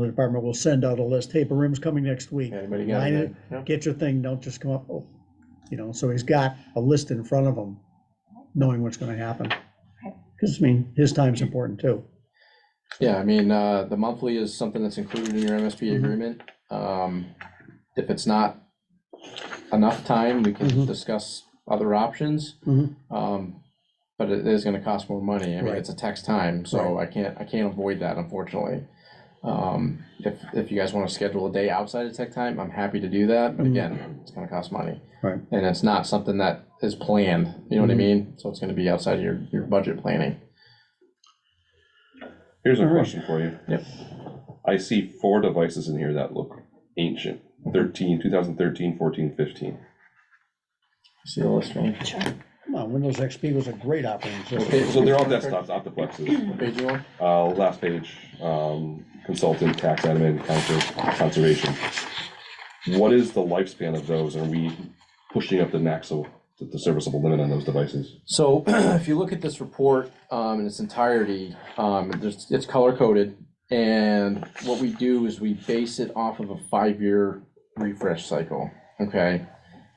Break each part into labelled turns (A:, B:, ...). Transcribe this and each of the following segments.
A: The department will send out a list, hey, Barim's coming next week.
B: Anybody got
A: Line
B: anything? Yeah.
A: Get your thing, don't just come up, oh, you know, so he's got a list in front of him, knowing what's gonna happen. Because, I mean, his time's important too.
B: Yeah, I mean, uh, the monthly is something that's included in your MSP
A: Mhm.
B: agreement. Um, if it's not enough time, we can
A: Mhm.
B: discuss other options.
A: Mhm.
B: Um, but it is gonna cost more money. I mean,
A: Right.
B: it's a tax time, so I can't, I can't avoid that unfortunately. Um, if, if you guys wanna schedule a day outside of tech time, I'm happy to do that, but
A: Mhm.
B: again, it's gonna cost money.
A: Right.
B: And it's not something that is planned, you know what I
A: Mhm.
B: mean? So it's gonna be outside of your, your budget planning.
C: Here's a
A: Alright.
C: question for you.
B: Yep.
C: I see four devices in here that look ancient, 13, 2013, 14, 15.
B: See the list, man?
A: Come on, Windows XP was a great operating system.
B: Okay.
C: So they're all desktops, optiplexes.
B: What page you on?
C: Uh, last page, um, consultant, tax admin, counter, conservation. What is the lifespan of those? Are we pushing up the maximum, the serviceable limit on those devices?
B: So if you look at this report um, in its entirety, um, there's- it's color coded. And what we do is we base it off of a five-year refresh cycle, okay?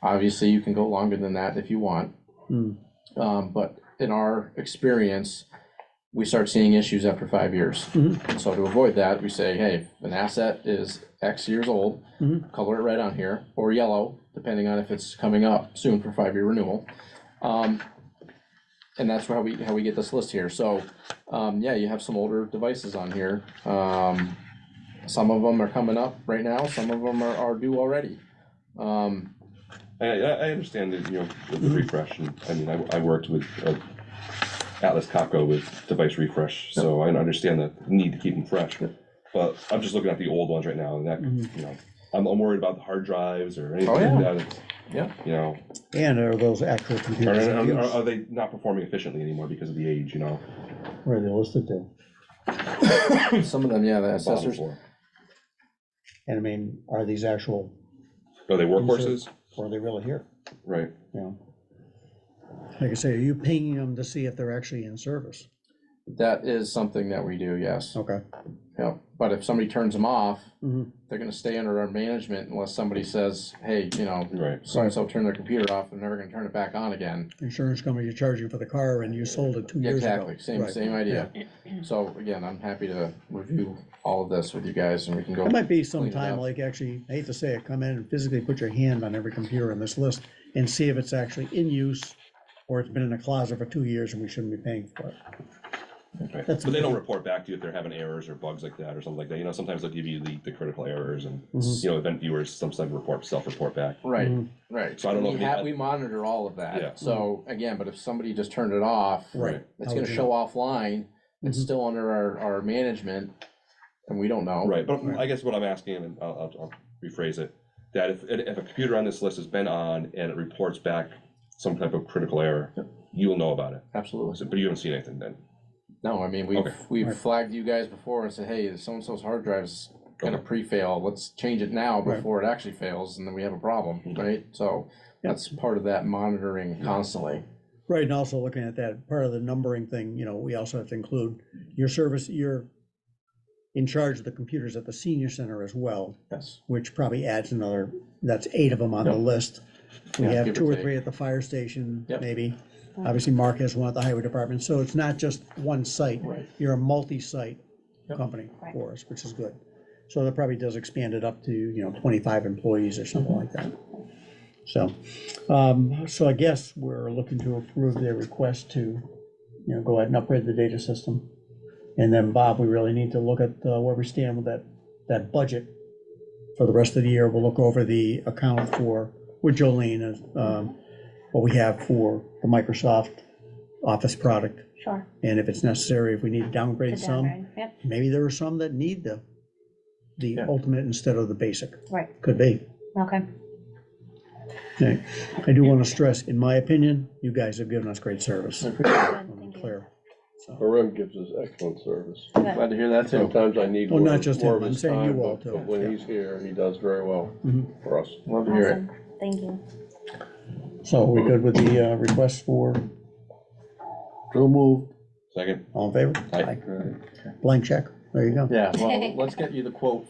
B: Obviously, you can go longer than that if you want.
A: Hmm.
B: Um, But in our experience, we start seeing issues after five years.
A: Mhm.
B: So to avoid that, we say, hey, if an asset is X years old,
A: Mhm.
B: color it red on here, or yellow, depending on if it's coming up soon for five-year renewal. Um, and that's how we, how we get this list here, so, um, yeah, you have some older devices on here. Um, some of them are coming up right now, some of them are, are due already. Um,
C: I, I, I understand that, you know, with the refresh, and, I mean, I, I worked with uh, Atlas Copco with device refresh, so I understand the need to keep them fresh. But I'm just looking at the old ones right now, and that,
A: Mhm.
C: you know, I'm, I'm worried about the hard drives or anything
B: Oh, yeah.
C: like that. It's-
B: Yeah.
C: You know,
A: And are those actual
C: are,
A: computers? in
C: are,
B: uh,
A: use?
C: are they not performing efficiently anymore because of the age, you know?
A: Where are they listed to?
B: some of them, yeah, the
C: bottom
B: assessors,
C: floor?
A: And I mean, are these actual,
C: Are Oh, they
A: These
C: workhorses?
A: or are they really here?
C: Right.
A: You know? Like I say, are you pinging them to see if they're actually in service?
B: that is something that we do, yes,
A: Okay.
B: yeah, but if somebody turns them off,
A: Mhm.
B: they're gonna stay under our management unless somebody says, hey, you know,
C: Right.
B: so-and-so turned their computer off, they're never gonna turn it back on again.
A: Insurance company, you charge you for the car and you sold it two
B: Yeah,
A: years ago.
B: Exactly, same,
A: Right.
B: same idea. So again, I'm happy to review all of this with you guys and we can go.
A: It might be
B: Clean
A: some
B: it
A: time,
B: up.
A: like actually, I hate to say it, come in and physically put your hand on every computer in this list and see if it's actually in use or it's been in a closet for two years and we shouldn't be paying for it.
C: Right.
A: That's-
C: But they don't report back to you if they're having errors or bugs like that or something like that. You know, sometimes they'll give you the, the critical errors and,
A: Mhm.
C: you know, event viewers sometimes report, self-report back.
B: Right,
A: Mhm.
B: right.
C: So I don't know
B: We
C: if we
B: ha-
C: had-
B: We monitor all of
C: Yeah.
B: that. So again, but if somebody just turned it off,
A: Right.
B: it's
A: How
B: gonna
A: would you
B: show offline. It's
A: Mhm.
B: still under our, our management and we don't know.
C: Right, but
A: Right.
C: I guess what I'm asking, and I'll, I'll, I'll rephrase it, that if, if a computer on this list has been on and it reports back some type of critical error, you'll know about it,
B: Absolutely.
C: So- but you haven't seen anything then.
B: No, I mean, we've,
C: Okay.
B: we've
A: Right.
B: flagged you guys before and said, hey, so-and-so's hard drive's gonna
C: Okay.
B: pre-fail. Let's change it now
A: Right.
B: before it actually fails and then we have a problem,
D: Mm-hmm.
B: right? So
A: Yeah.
B: that's part of that monitoring constantly.
A: Right, and also looking at that, part of the numbering thing, you know, we also have to include your service, you're in charge of the computers at the senior center as well,
B: Yes.
A: which probably adds another, that's eight of them on the list. We
B: Yeah,
A: have
B: give or
A: two or
B: take.
A: three at the fire station,
B: Yep.
A: maybe. Obviously, Mark has one at the highway department, so it's not just one site.
B: Right.
A: You're a multi-site
B: Yep.
A: company
E: Right.
A: for us, which is good. So that probably does expand it up to, you know, twenty-five employees or something like that. So, um, so I guess we're looking to approve their request to, you know, go ahead and upgrade the data system. And then, Bob, we really need to look at uh, where we stand with that, that budget for the rest of the year. We'll look over the account for, with Jolene, um, what we have for the Microsoft Office product.
E: Sure.
A: And if it's necessary, if we need to
E: the
A: downgrade some,
E: downgrade. Yep,
A: maybe there are some that need the, the
B: Yeah.
A: ultimate instead of the basic.
E: right,
A: Could be.
E: okay.
A: Okay. I do want to stress, in my opinion, you guys have given us great service.
E: Good,
A: I'm
E: thank you.
A: Clear. So,
D: Harim gives us excellent service.
E: Good.
B: Glad to hear that too.
D: Sometimes I need
A: Oh,
D: more
A: not
D: of
A: just
D: more
A: him,
D: of
A: I'm
D: his
A: saying you
D: time,
A: all
D: but-
A: too.
D: but When he's here, he does very well
A: Mhm.
D: for us.
B: Love to hear it.
E: Awesome, thank you.
A: so we good with the uh, request for,
D: So moved.
C: Second,
A: all in favor?
C: Aye.
A: Blank check. there you go.
B: Yeah, well, let's get you the quote